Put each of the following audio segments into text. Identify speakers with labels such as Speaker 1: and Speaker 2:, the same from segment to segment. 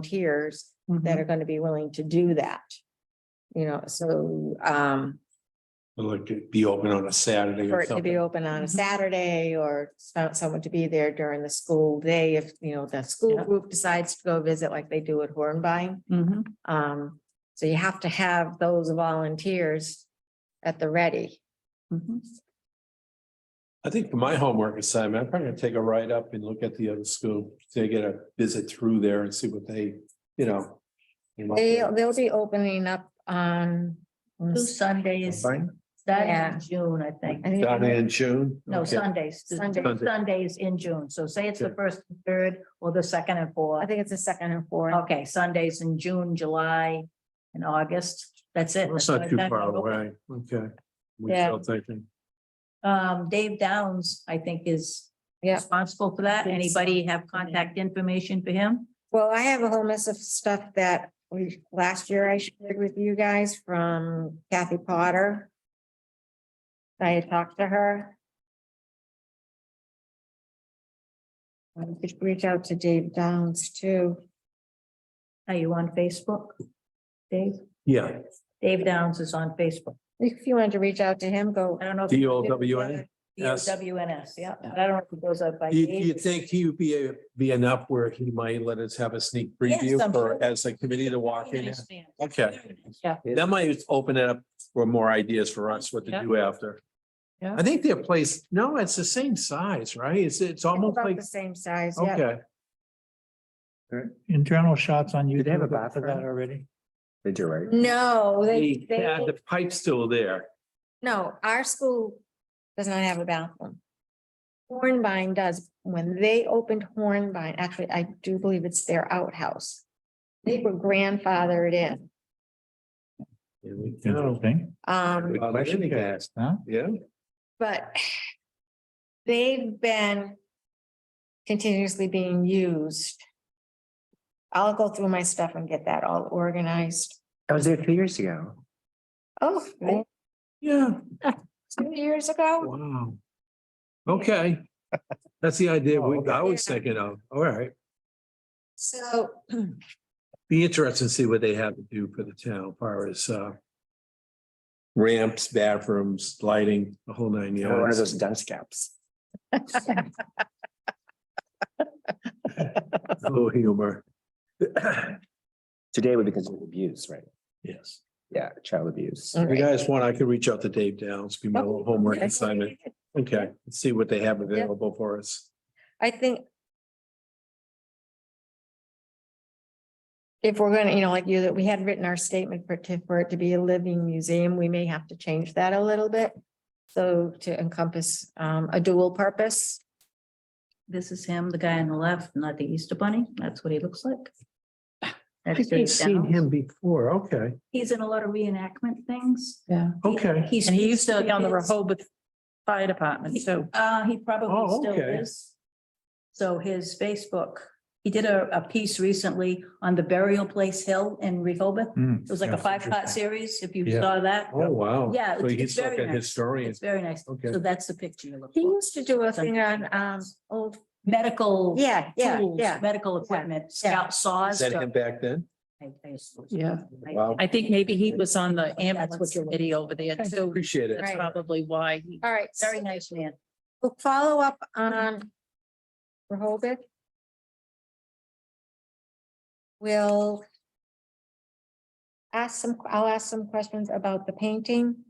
Speaker 1: volunteers that are gonna be willing to do that. You know, so, um,
Speaker 2: Like it'd be open on a Saturday
Speaker 1: for
Speaker 2: or
Speaker 1: it to be
Speaker 2: something.
Speaker 1: open on a
Speaker 3: Mhm.
Speaker 1: Saturday or so- someone to be there during the school day if, you know, the school
Speaker 3: Yeah.
Speaker 1: group decides to go visit like they do at Hornbein.
Speaker 3: Mhm.
Speaker 1: Um, so you have to have those volunteers at the ready. mm-hmm.
Speaker 3: Mhm.
Speaker 2: I think for my homework assignment, I'm probably gonna take a ride up and look at the other school, to get a visit through there and see what they, you know. you know.
Speaker 1: They, they'll be opening up on. on
Speaker 4: Two
Speaker 1: s-
Speaker 4: Sundays,
Speaker 2: Fine.
Speaker 4: Saturday
Speaker 1: Yeah.
Speaker 4: in June, I think.
Speaker 1: I think-
Speaker 2: Down in June.
Speaker 4: No,
Speaker 2: Okay.
Speaker 4: Sundays, the-
Speaker 1: Sunday.
Speaker 2: Sunday.
Speaker 4: Sundays in June. So say it's the
Speaker 2: Okay.
Speaker 4: first, and third, or the second and
Speaker 1: I
Speaker 4: fourth.
Speaker 1: think it's the second and fourth.
Speaker 4: Okay, Sundays in June, July, and August. That's it.
Speaker 2: That's
Speaker 4: That's
Speaker 2: not
Speaker 4: what
Speaker 2: too
Speaker 4: I've
Speaker 2: far
Speaker 4: got.
Speaker 2: away, okay. We
Speaker 1: Yeah.
Speaker 2: still thinking,
Speaker 4: Um, Dave Downs, I think, is
Speaker 1: Yeah.
Speaker 4: responsible for that. Anybody have contact information for him?
Speaker 1: Well, I have a whole mess of stuff that we, last year I shared with you guys from Kathy Potter. I had talked to her. I could reach out to Dave Downs too.
Speaker 4: Are you on Facebook? Dave,
Speaker 2: yeah,
Speaker 4: Dave Downs is on Facebook.
Speaker 1: If you wanted to reach out to him, go.
Speaker 4: I don't know. if
Speaker 2: D O W N. Yes.
Speaker 4: WNS, yeah. But I don't know if it goes up by.
Speaker 2: You,
Speaker 4: Dave.
Speaker 2: you think he would be, be enough where he might let us have a sneak preview
Speaker 4: I'm
Speaker 2: for,
Speaker 4: sure.
Speaker 2: as a committee to walk in?
Speaker 4: Understand.
Speaker 2: Okay,
Speaker 4: Yeah.
Speaker 2: that might open it up for more ideas for us, what to
Speaker 4: Yeah.
Speaker 2: do after.
Speaker 4: Yeah.
Speaker 2: I think their place, no, it's the same size, right? It's, it's almost
Speaker 1: About
Speaker 2: like,
Speaker 1: the same size, yeah.
Speaker 2: okay.
Speaker 3: Internal shots on
Speaker 5: Do
Speaker 3: YouTube.
Speaker 5: they have a
Speaker 3: for that
Speaker 5: bathroom?
Speaker 3: Already.
Speaker 5: They do, right?
Speaker 1: No, Oh, they,
Speaker 2: They
Speaker 1: they,
Speaker 2: had the pipe still there.
Speaker 1: no, our school does not have a bathroom. Hornbein does. When they opened Hornbein, actually, I do believe it's their outhouse. They were grandfathered in.
Speaker 2: There we go.
Speaker 3: Interesting,
Speaker 1: Um,
Speaker 2: Well, they didn't ask,
Speaker 3: huh?
Speaker 2: Yeah.
Speaker 1: but they've been continuously being used. I'll go through my stuff and get that all organized.
Speaker 5: I was there two years ago.
Speaker 1: Oh,
Speaker 2: Oh. Yeah,
Speaker 1: two years ago?
Speaker 2: wow. Okay, that's the idea we, I
Speaker 1: okay.
Speaker 2: was thinking of, all right.
Speaker 1: So
Speaker 2: Be interesting to see what they have to do for the town, far as, uh. Ramps, bathrooms, lighting, the whole nine
Speaker 5: One of
Speaker 2: yards.
Speaker 5: those dust caps.
Speaker 2: Oh, humor.
Speaker 5: Today would be considered abuse, right?
Speaker 2: Yes.
Speaker 5: Yeah, child abuse.
Speaker 1: Mm.
Speaker 2: If you guys want, I could reach out to Dave Downs, give me
Speaker 4: Oh,
Speaker 2: a little homework assignment. Okay, see what they have available for us.
Speaker 1: I think if we're gonna, you know, like you, that we had written our statement for, to- for it to be a living museum, we may have to change that a little bit. So to encompass, um, a dual purpose.
Speaker 4: This is him, the guy on the left, not the Easter bunny. That's what he looks like.
Speaker 2: I
Speaker 4: That's
Speaker 2: think I've
Speaker 4: Dave
Speaker 2: seen
Speaker 4: Downs.
Speaker 2: him before. Okay,
Speaker 4: He's in a lot of reenactment things.
Speaker 3: Yeah.
Speaker 2: okay.
Speaker 4: He's.
Speaker 3: And he used to be on the
Speaker 4: he's-
Speaker 3: Rehoboth Fire Department, so.
Speaker 4: Uh, he probably
Speaker 2: Oh,
Speaker 4: still
Speaker 2: okay.
Speaker 4: is. So his Facebook, he did a, a piece recently on the burial place hill in Rehoboth.
Speaker 5: Hmm.
Speaker 4: It was like a five-part series, if you
Speaker 2: Yeah.
Speaker 4: saw that.
Speaker 2: Oh, wow.
Speaker 4: Yeah,
Speaker 2: So
Speaker 4: it's-
Speaker 2: he's
Speaker 4: it's very
Speaker 2: like a
Speaker 4: nice.
Speaker 2: historian.
Speaker 4: It's very nice.
Speaker 2: Okay.
Speaker 4: So that's the picture you look
Speaker 1: He
Speaker 4: for.
Speaker 1: used to do a thing on, um, old,
Speaker 4: Medical.
Speaker 1: yeah, yeah,
Speaker 4: tools,
Speaker 1: yeah.
Speaker 4: Medical equipment, scout
Speaker 2: Is
Speaker 4: saws.
Speaker 2: that
Speaker 4: stuff.
Speaker 2: him back then?
Speaker 4: I- I assume.
Speaker 3: Yeah.
Speaker 4: I-
Speaker 2: Wow.
Speaker 3: I think maybe he was on the ambulance
Speaker 4: what you're-
Speaker 3: committee over there too.
Speaker 2: Appreciate it.
Speaker 3: That's
Speaker 1: Right.
Speaker 3: probably why. he-
Speaker 1: All right, so
Speaker 4: Very nice man.
Speaker 1: we'll follow up on Rehoboth. We'll ask some, I'll ask some questions about the painting.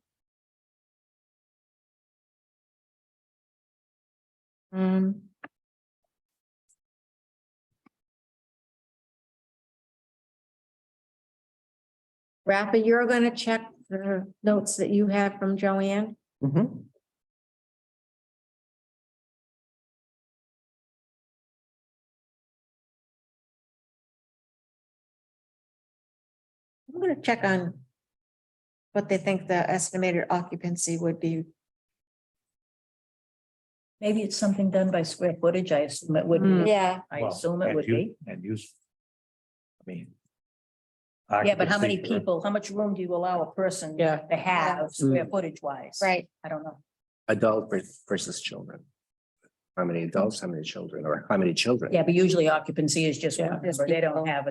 Speaker 1: Um. Rafa, you're gonna check the notes that you have from Joanne?
Speaker 5: Mhm.
Speaker 1: I'm gonna check on what they think the estimated occupancy would be.
Speaker 4: Maybe it's something done by square footage. I assume it would be.
Speaker 1: Yeah.
Speaker 4: I
Speaker 5: Well,
Speaker 4: assume it
Speaker 5: and
Speaker 4: would
Speaker 5: you-
Speaker 4: be.
Speaker 5: And use. I mean.
Speaker 4: Yeah, but how many
Speaker 5: occupancy for-
Speaker 4: people, how much room do you allow a person
Speaker 3: Yeah.
Speaker 4: to have square footage wise?
Speaker 1: Right,
Speaker 4: I don't know.
Speaker 5: Adult ver- versus children.
Speaker 6: how many adults, how many children, or how many children?
Speaker 5: Yeah, but usually occupancy is just one
Speaker 4: Yeah.
Speaker 5: number. They don't have a